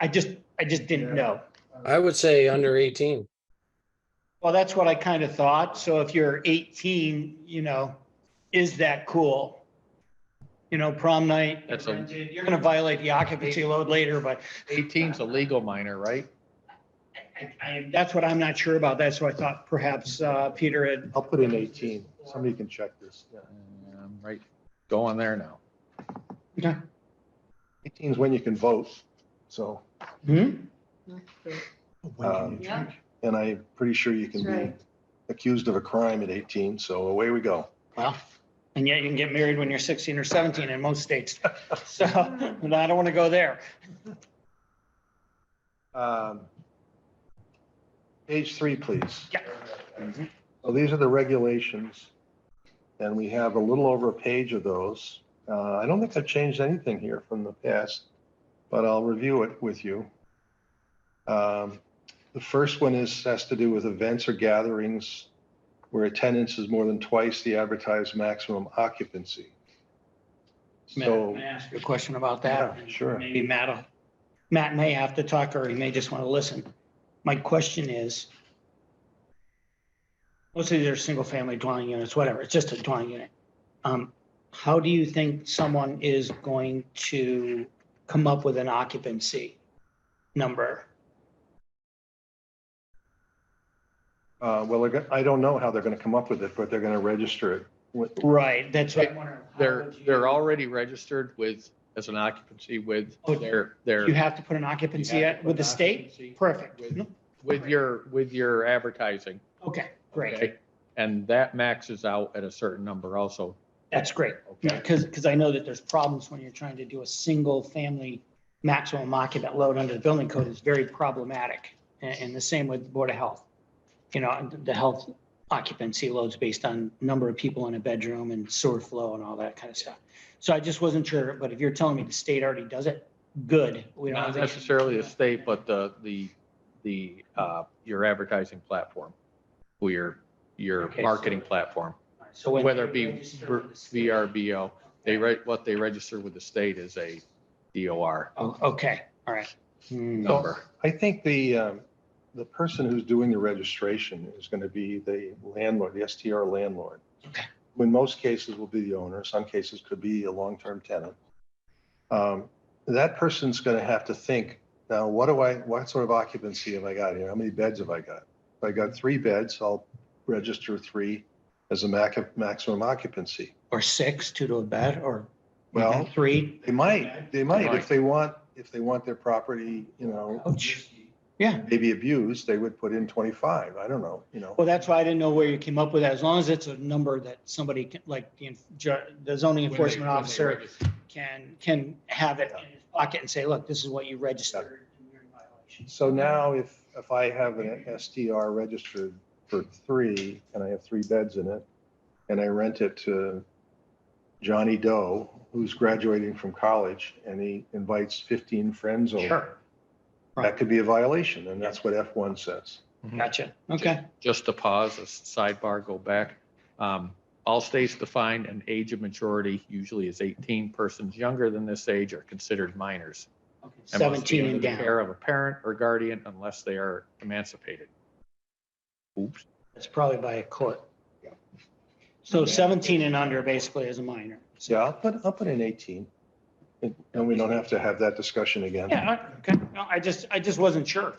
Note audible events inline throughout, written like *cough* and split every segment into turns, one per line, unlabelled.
I just, I just didn't know.
I would say under eighteen.
Well, that's what I kind of thought. So if you're 18, you know, is that cool? You know, prom night,
That's a,
you're going to violate the occupancy load later, but
18's a legal minor, right?
I- I- that's what I'm not sure about. That's what I thought perhaps uh, Peter had.
I'll put in eighteen. Somebody can check this.
Um, Right, go on there now.
Eighteen is when you can vote, so,
Hmm?
um,
Yeah.
and I'm pretty sure you can
That's
be
right.
accused of a crime at eighteen, so away we go.
Well, and yet you can get married when you're 16 or 17 in most states. *laughs* So and I don't want to go there.
Um, Page three, please. Mm-hmm.
Yeah.
So these are the regulations, and we have a little over a page of those. Uh, I don't think I've changed anything here from the past, but I'll review it with you. Um, The first one is, has to do with events or gatherings where attendance is more than twice the advertised maximum occupancy.
Matt,
So,
May I ask you a question about that?
Yeah, sure.
Maybe Matt, Matt may have to talk or he may just want to listen. My question is, let's say they're single-family dwelling units, whatever, it's just a dwelling unit. Um, How do you think someone is going to come up with an occupancy number?
uh, well, they're go- I don't know how they're going to come up with it, but they're going to register it with,
Right, that's what I'm wondering. How
They're,
would you-
they're already registered with, as an occupancy with
Oh,
their, their.
You have to put an occupancy at- with the state?
Occupancy
Perfect.
With- With your, with your advertising.
Okay, great.
okay? And that maxes out at a certain number also,
That's great.
okay?
Because, because I know that there's problems when you're trying to do a single family maximum occupant load under the building code is very problematic. And, and the same with Board of Health. You know, and the health occupancy loads based on number of people in a bedroom and sewer flow and all that kind of stuff. So I just wasn't sure, but if you're telling me the state already does it, good. We don't
Not
have to-
necessarily the state, but the, the, the, uh, your advertising platform, or your, your
Okay, so-
marketing platform.
So when
whether it
they
be
register with the state-
VRBO, they write, what they register with the state is a DOR
Oh, okay, all right. Hmm.
number.
I think the, um, the person who's doing the registration is going to be the landlord, the STR landlord.
Okay.
who In most cases will be the owner, some cases could be a long-term tenant. Um, That person's going to have to think, now, what do I, what sort of occupancy have I got here? How many beds have I got? If I got three beds, I'll register three as a mac, maximum occupancy.
Or six, two to a bed, or
Well-
three?
They might, they might, if
Right.
they want, if they want their property, you know,
Ouch. Yeah.
maybe abused, they would put in 25. I don't know, you know.
Well, that's why I didn't know where you came up with that. As long as it's a number that somebody can, like the, en- ju- the zoning
When they- when
enforcement
they
officer
register.
can, can have it in his pocket and say, look, this is what you registered. and you're in violation.
So now if, if I have an STR registered for three and I have three beds in it and I rent it to Johnny Doe, who's graduating from college and he invites 15 friends over,
Sure,
that could be a violation. And that's what F1 says.
gotcha. Okay.
Just to pause, a sidebar, go back. Um, All states define an age of majority usually is 18. Persons younger than this age are considered minors. and must be
17
under
and
the Care
down.
of a parent or guardian unless they are emancipated. Oops.
That's probably by a court. So 17 and under basically is a minor.
So I'll put, I'll put in 18. And and we don't have to have that discussion again.
Yeah, uh, I- okay. No, I just, I just wasn't sure.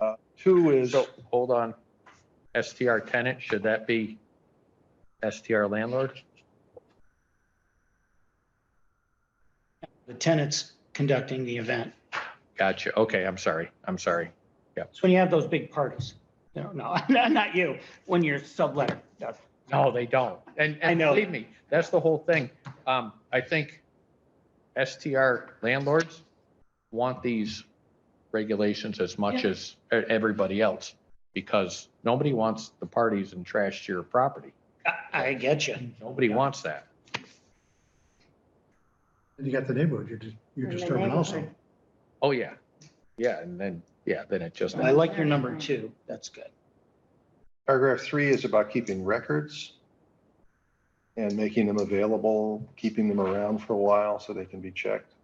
Uh, Two is,
So, hold on. STR tenant, should that be STR landlord?
The tenant's conducting the event.
Gotcha. Okay, I'm sorry. I'm sorry.
It's when you have those big parties. No, no, *laughs* not you, when you're subletting. That's-
No, they don't. And,
I
and
know.
believe me, that's the whole thing. Um, I think STR landlords want these regulations as much as e- everybody else because nobody wants the parties and trash to your property.
I- I get you.
Nobody wants that.
And you got the neighborhood, you're, dis- you're
In the
disturbing also.
neighborhood.
Oh, yeah. Yeah, and then, yeah, then it just.
I like your number two. That's good.
Paragraph three is about keeping records and making them available, keeping them around for a while so they can be checked.